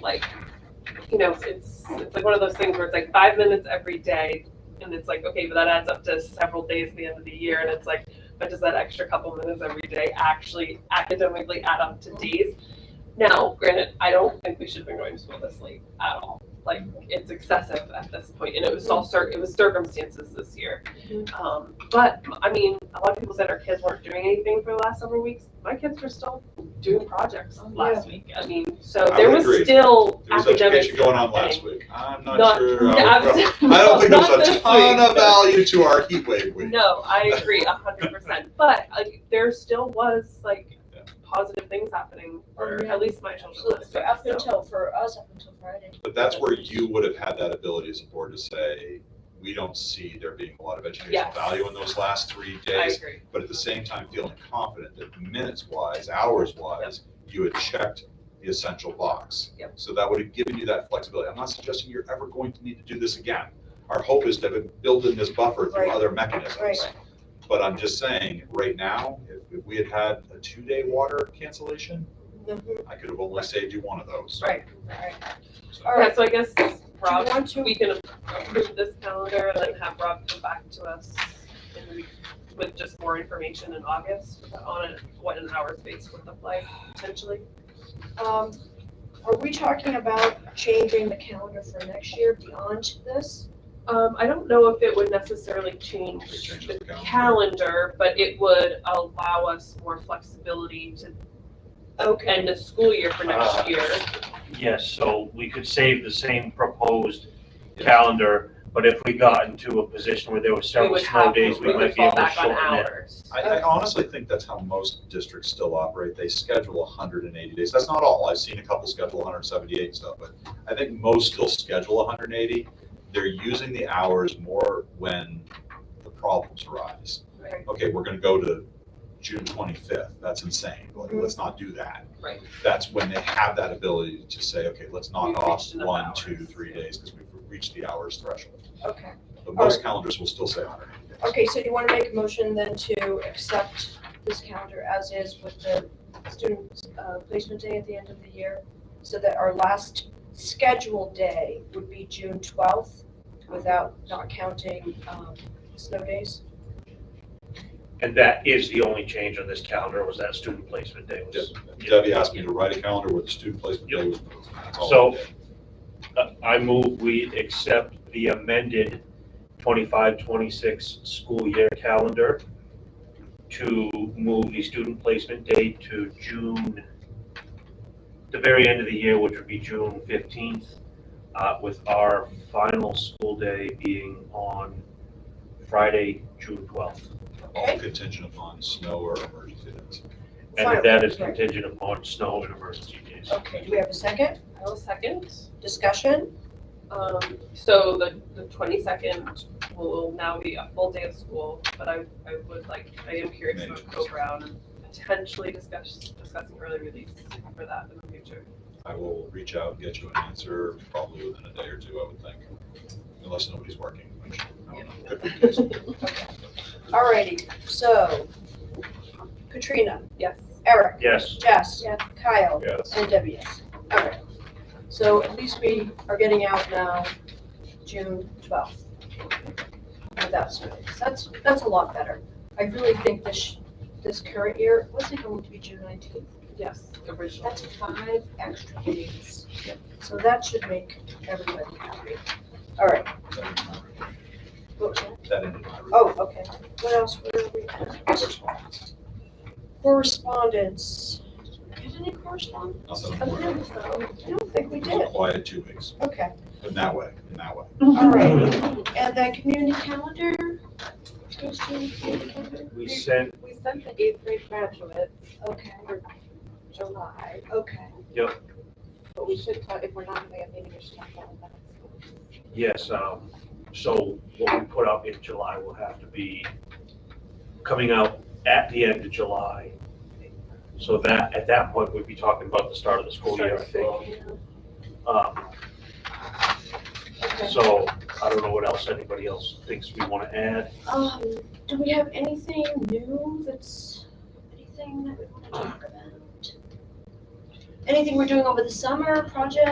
like, you know, it's, it's like one of those things where it's like five minutes every day. And it's like, okay, but that adds up to several days at the end of the year. And it's like, but does that extra couple minutes every day actually academically add up to days? Now, granted, I don't think we should have been going to school this late at all. Like, it's excessive at this point, and it was all cir- it was circumstances this year. Um, but I mean, a lot of people said our kids weren't doing anything for the last several weeks. My kids were still doing projects last week. I mean, so I there would was agree. still There was academic. education going on last week. I'm Not- not sure. Yeah, I would I'm- prob- I don't think not there's a this ton week. of value to our heat wave week. No, I agree a hundred percent. But like, there still was like Yeah. positive things happening, or Yeah. at least my children So last for week. up so. until, for us, up until Friday. But that's where you would have had that ability as a board to say, we don't see there being a lot of educational Yes. value in those last three I days. agree. But at the same time, feeling confident that minutes wise, hours wise, you had checked the essential box. Yep. So that would have given you that flexibility. I'm not suggesting you're ever going to need to do this again. Our hope is to have built in this buffer through Right. other mechanisms. Right. But I'm just saying, right now, if, if we had had a two-day water cancellation, I could have only saved you one of those. Right, right. So- All Yeah, right, so I guess do you Rob, want to, we can approve this calendar and then have Rob come back to us in the week with just more information in August on it, what an hour space would look like potentially. um, are we talking about changing the calendar for next year beyond this? Um, I don't know if it would necessarily It change changes the the calendar. calendar, but it would allow us more flexibility to Okay, end the school year for Ah. Uh, next year. Yes, so we could save the same proposed Yeah. calendar, but if we got into a position where there were We several would snow have, we days, we would might be fall able to back on shorten it. hours. I, I honestly think that's how most districts still operate. They schedule hundred and eighty days. That's not all. I've seen a couple schedule hundred and seventy-eight stuff, but I think most still schedule hundred and eighty. They're using the hours more when the problems arise. Right. Okay, we're gonna go to June twenty-fifth. That's insane. Like, Mhm. let's not do that. Right. That's when they have that ability to say, okay, let's knock We've off reached enough one, two, hours. three days because we've reached the hours threshold. okay. But All most calendars will still say hundred and eighty days. Okay, so do you want to make a motion then to accept this calendar as is with the student uh, placement day at the end of the year? So that our last scheduled day would be June twelfth without, not counting um, snow days? And that is the only change on this calendar, was that student placement day was. Debbie asked me to write a calendar with student placement Yep. day was moved. That's all I So- did. Uh, I move we accept the amended 25-26 school year calendar to move the student placement date to June, the very end of the year, which would be June fifteenth, uh, with our final school day being on Friday, June twelfth. All contingent upon snow or emergency events. And Fine, that is right. contingent upon snow and emergency days. Okay, do we have a second? I'll second. Discussion? Um, so the, the twenty-second will now be a full day of school, but I, I would like, I am curious about Co-Brown and potentially discuss, discussing early release for that in the future. I will reach out and get you an answer probably within a day or two, I would think, unless nobody's working. which I don't know. Could be the case. Alrighty, so Katrina, Yes. Eric, Yes, Jess, Kyle, Yes. and Debbie, yes. Alright, so at least we are getting out now, June twelfth. Without snow, that's, that's a lot better. I really think this, this current year, was it going to be June nineteenth? Yes, original. That's five extra days. So that should make everybody happy. Alright, That ended my review. what was that? That ended my review. Oh, okay. What else were we at? Correspondence. Correspondence. Did any correspondence? Nothing I more. It don't think we was did. a quiet two weeks, Okay, in that way, in that way. all right. And then community calendar? Christian community calendar? we sent, We sent the eighth grade graduate Okay, July, okay. but we should, talk- if we're not having a meeting, we should talk about that. yes, um, so what we put up in July will have to be coming out at the end of July. So that, at that point, we'd be talking about the start of the school year, I think. Um, Okay. so I don't know what else anybody else thinks we wanna add. Um, do we have anything new that's, anything that we want to talk about? Anything we're doing over the summer, project?